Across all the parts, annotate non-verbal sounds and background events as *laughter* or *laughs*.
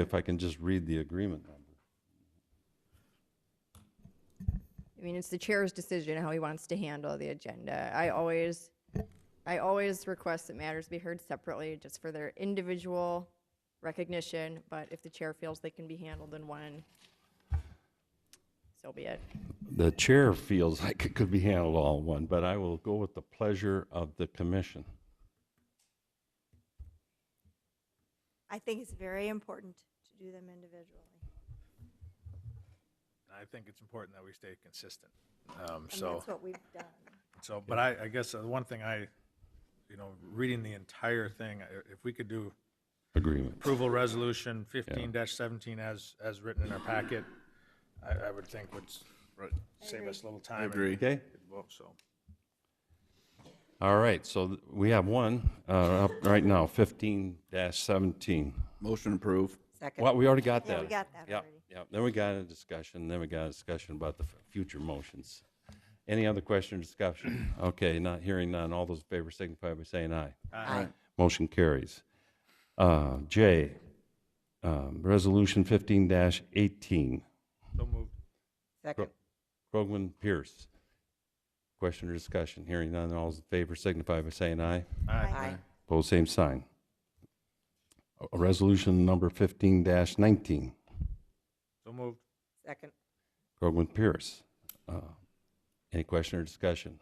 if I can just read the agreement number. I mean, it's the chair's decision how he wants to handle the agenda. I always, I always request that matters be heard separately, just for their individual recognition, but if the chair feels they can be handled in one, so be it. The chair feels like it could be handled all in one, but I will go with the pleasure of the commission. I think it's very important to do them individually. I think it's important that we stay consistent. Um, And so, that's what we've done. so, but I, I guess the one thing I, you know, reading the entire thing, i- if we could do Agreement. approval resolution fifteen seventeen as, as written in our packet, I, I would think would s- would save us a little time. I agree. Okay? So, All right, so th- we have one uh, up right now, 15-17. Motion approved. Well, we already got that. Yeah, we got that Yeah, already. yeah. Then we got a discussion, then we got a discussion about the f- future motions. Any other question or discussion? Okay, not hearing none. All those in favor signify by saying aye. Aye. Motion carries. Uh, J, um, Resolution 15-18, so moved. Second. Krogman Pierce. Question or discussion? Hearing none. All those in favor signify by saying aye. Aye. Pose same sign. A- a Resolution number 15-19, So moved. Second. Krogman Pierce. Uh, Any question or discussion?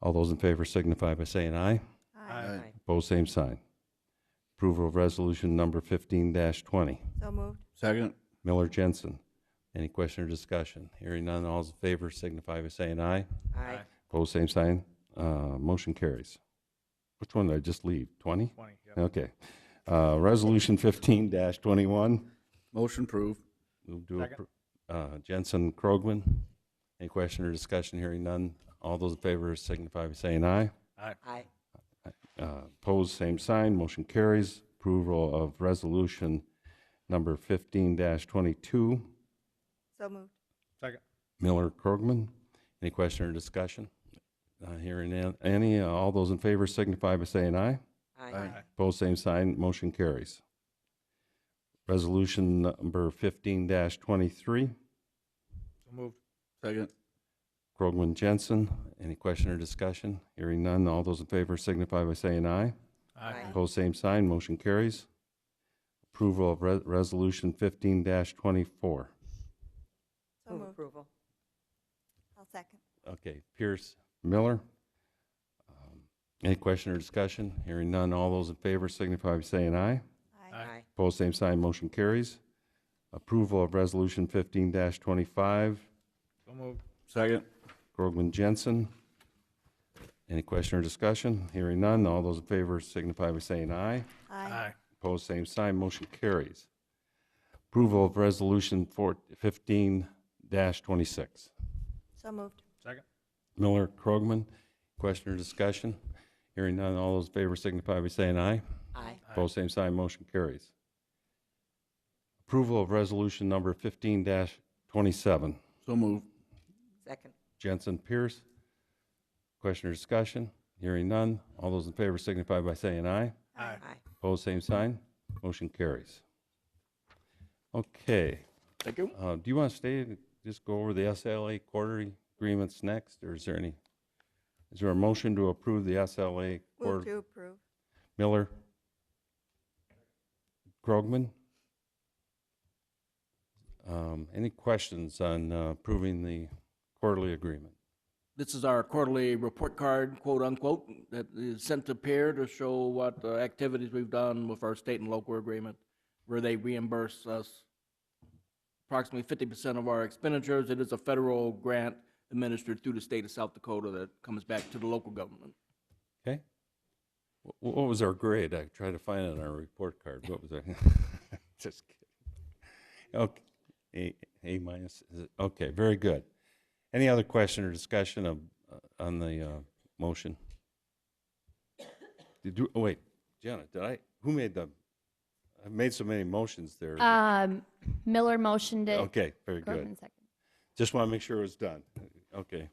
All those in favor signify by saying aye. Aye. Pose same sign. Approval of resolution number 15-20. So moved. Second. Miller Jensen. Any question or discussion? Hearing none, all those in favor signify by saying aye. Aye. Pose same sign. Uh, Motion carries. Which one did I just leave? 20? Twenty, yep. Okay. Uh, Resolution 15-21. Motion approved. Move to Second. appro- uh, Jensen Krogman. Any question or discussion? Hearing none. All those in favor signify by saying aye. Aye. Aye. Uh, Opposed, same sign. Motion carries. Approval of resolution number 15-22. So moved. Second. Miller Krogman. Any question or discussion? Not hearing an- any. Uh, All those in favor signify by saying aye. Aye. Opposed, same sign. Motion carries. Resolution number 15-23. So moved. Second. Krogman Jensen. Any question or discussion? Hearing none, all those in favor signify by saying aye. Aye. Opposed, same sign, motion carries. Approval of Re- Resolution 15-24. So Move moved. approval. I'll second. Okay, Pierce, Miller. Um, Any question or discussion? Hearing none, all those in favor signify by saying aye. Aye. Aye. Opposed, same sign, motion carries. Approval of Resolution 15-25. So moved. Second. Krogman Jensen. Any question or discussion? Hearing none, all those in favor signify by saying aye. Aye. Aye. Opposed, same sign, motion carries. Approval of Resolution 4 15-26. So moved. Second. Miller, Krogman, question or discussion? Hearing none, all those in favor signify by saying aye. Aye. Opposed, same sign, motion carries. Approval of Resolution Number 15-27. So moved. Second. Jensen Pierce. Question or discussion? Hearing none. All those in favor signify by saying aye. Aye. Aye. Opposed, same sign. Motion carries. Okay, Thank you. uh, do you want to stay and just go over the SLA quarterly agreements next, or is there any? Is there a motion to approve the SLA? Move quarter- to approve. Miller? Krogman? Um, Any questions on uh, approving the quarterly agreement? This is our quarterly report card, quote unquote, that is sent to peer to show what uh, activities we've done with our state and local agreement, where they reimburse us approximately fifty percent of our expenditures. It is a federal grant administered through the state of South Dakota that comes back to the local government. Okay. Wh- wh- What was our grade? I tried to find it on our report card. What was I? *laughs* Just kidding. Okay, A, A minus, is it? Okay, very good. Any other question or discussion of, uh, on the, uh, motion? Did you, oh, wait, Jenna, did I, who made the, I made so many motions there. Um, Miller motioned it. Okay, very good. Krogman seconded. Just want to make sure it was done. Okay.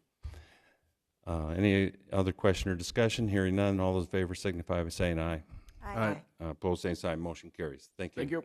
Uh, any other question or discussion? Hearing none, all those in favor signify by saying aye. Aye. Uh, Opposed, same sign, motion carries. Thank you. Thank you.